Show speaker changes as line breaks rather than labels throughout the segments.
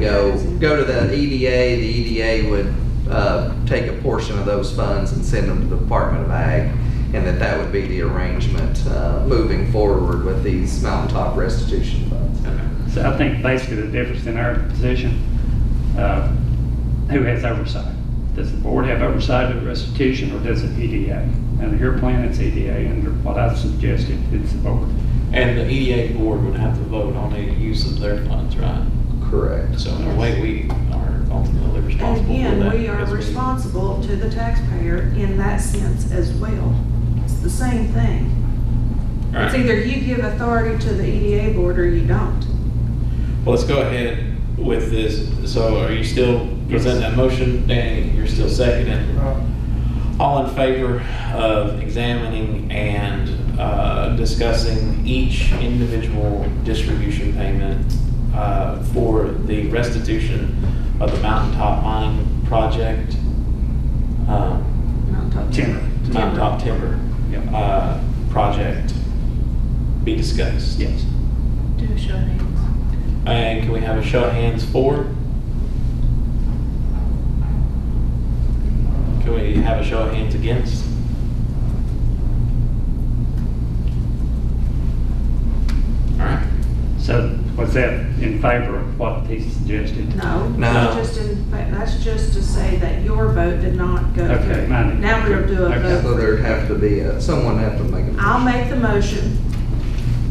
go, go to the EDA, the EDA would uh, take a portion of those funds and send them to the Department of Ag, and that that would be the arrangement uh, moving forward with these mountaintop restitution funds.
So I think basically the difference in our position, uh, who has oversight? Does the board have oversight of restitution or does it E EDA? Under your plan, it's EDA, under what I've suggested, it's the board.
And the EDA board would have to vote on the use of their funds, right?
Correct.
So in a way, we are ultimately responsible for that.
And again, we are
because
responsible to the taxpayer in that sense as well. It's the same thing.
All
It's
right.
either you give authority to the EDA board or you don't.
Well, let's go ahead with this. So are you still presenting that motion, Danny? You're still seconding? All in favor of examining and uh, discussing each individual distribution payment uh, for the restitution of the Mountaintop Mine project? um,
Not talking-
Timber.
Mountaintop Timber
Yep.
uh, project be discussed?
Yes.
Do show hands.
And can we have a show of hands for? Can we have a show of hands against? All right.
So was that in favor of what he suggested?
No,
No.
that's just in, fact, that's just to say that your vote did not go
Okay,
through.
mine-
Now we'll do a
okay.
vote.
So there'd have to be, a- someone have to make a
I'll
motion.
make the motion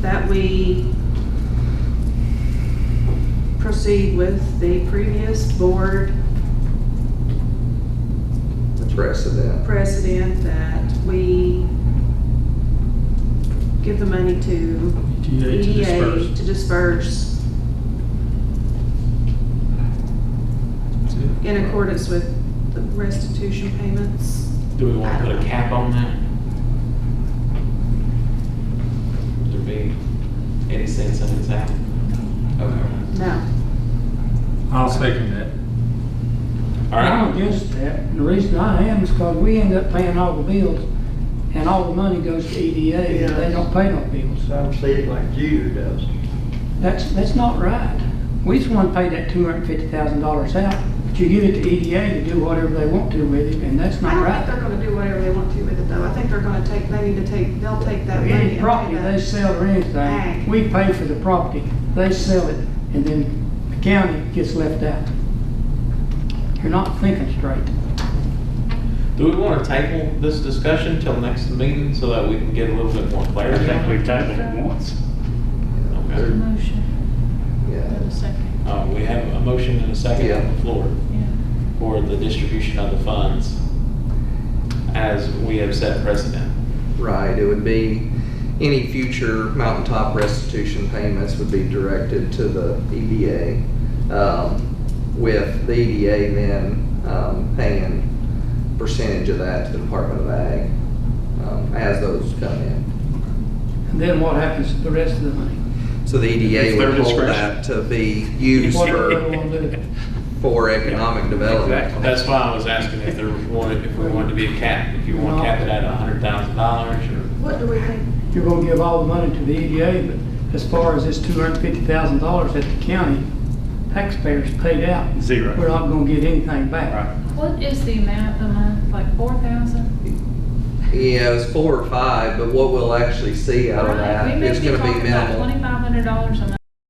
that we proceed with the previous board
The precedent.
precedent that we give the money to
EDA to
EDA
disperse.
to disperse in accordance with the restitution payments.
Do we want to put a cap on that? Would there be any sense in its act? Okay.
No.
I'll second that.
All
I'm
right.
against that. And The reason I am is because we end up paying all the bills and all the money goes to EDA and they don't pay no bills.
Some see it like Judy does.
That's, that's not right. We just want to pay that two hundred and fifty thousand dollars out, but you give it to EDA to do whatever they want to with it and that's
I don't
not
think they're
right.
gonna do whatever they want to with it though. I think they're gonna take, they need to take, they'll take that money. and
Any
pay
property
that.
they sell or anything,
Ag.
we pay for the property, they sell it, and then the county gets left out. You're not thinking straight.
Do we want to table this discussion till next meeting so that we can get a little bit more
I
clarity?
think we've tabled it once.
Okay.
Motion for
Yeah.
the second,
Uh, we have a motion and a second on the floor
yeah.
for the distribution of the funds as we have set precedent.
Right, it would be, any future mountaintop restitution payments would be directed to the EDA. um, With the EDA then um, paying percentage of that to the Department of Ag um, as those come in.
And then what happens to the rest of the money?
So the
It's
EDA
their
would hold
discretion.
that to be used
Whatever they
for,
want to do.
for economic development.
Exactly.
That's why I was asking if there wanted, if we wanted to be a cap, if you want to cap it at a hundred thousand dollars or.
What do we think?
you're gonna give all the money to the EDA, but as far as this two hundred and fifty thousand dollars that the county taxpayers paid out, we're
Zero.
not gonna get anything back.
Right.
What is the amount a month, like four thousand?
Yeah, it was four or five, but what we'll actually see out of that is gonna be
We may be talking about
minimal.
twenty-five hundred dollars a month.